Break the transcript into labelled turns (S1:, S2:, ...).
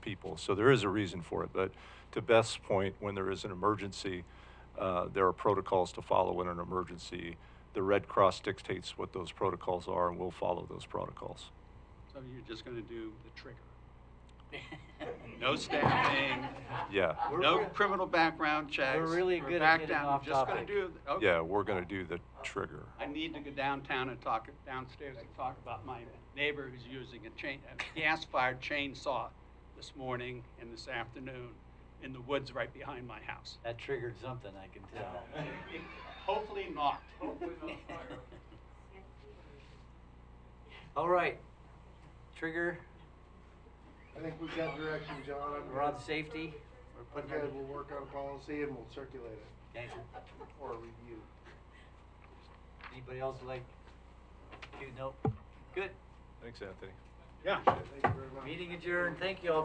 S1: people. So there is a reason for it. But to Beth's point, when there is an emergency, uh, there are protocols to follow in an emergency. The Red Cross dictates what those protocols are, and we'll follow those protocols.
S2: So you're just gonna do the trigger. No staffing.
S1: Yeah,
S3: We're
S2: No
S3: re-
S2: criminal background checks.
S3: really
S2: We're
S3: good at
S2: back
S3: getting
S2: down.
S3: off
S2: Just gonna
S3: topic.
S2: do, okay.
S1: yeah, we're going to do the trigger.
S2: I need to go downtown and talk, downstairs and talk about my neighbor who's using a chain, a gas-fired chainsaw this morning and this afternoon in the woods right behind my house.
S3: That triggered something, I can tell.
S2: Hopefully not.
S3: All right, trigger,
S4: I think we've got direction, John. I'm-
S3: we're on safety, we're putting
S4: Okay,
S3: our,
S4: we'll work on a policy and we'll circulate it
S3: okay,
S4: or review.
S3: anybody else like, to nope, good,
S1: Thanks, Anthony.
S2: Yeah.
S4: Thank you very much.
S3: meeting adjourned, thank you all.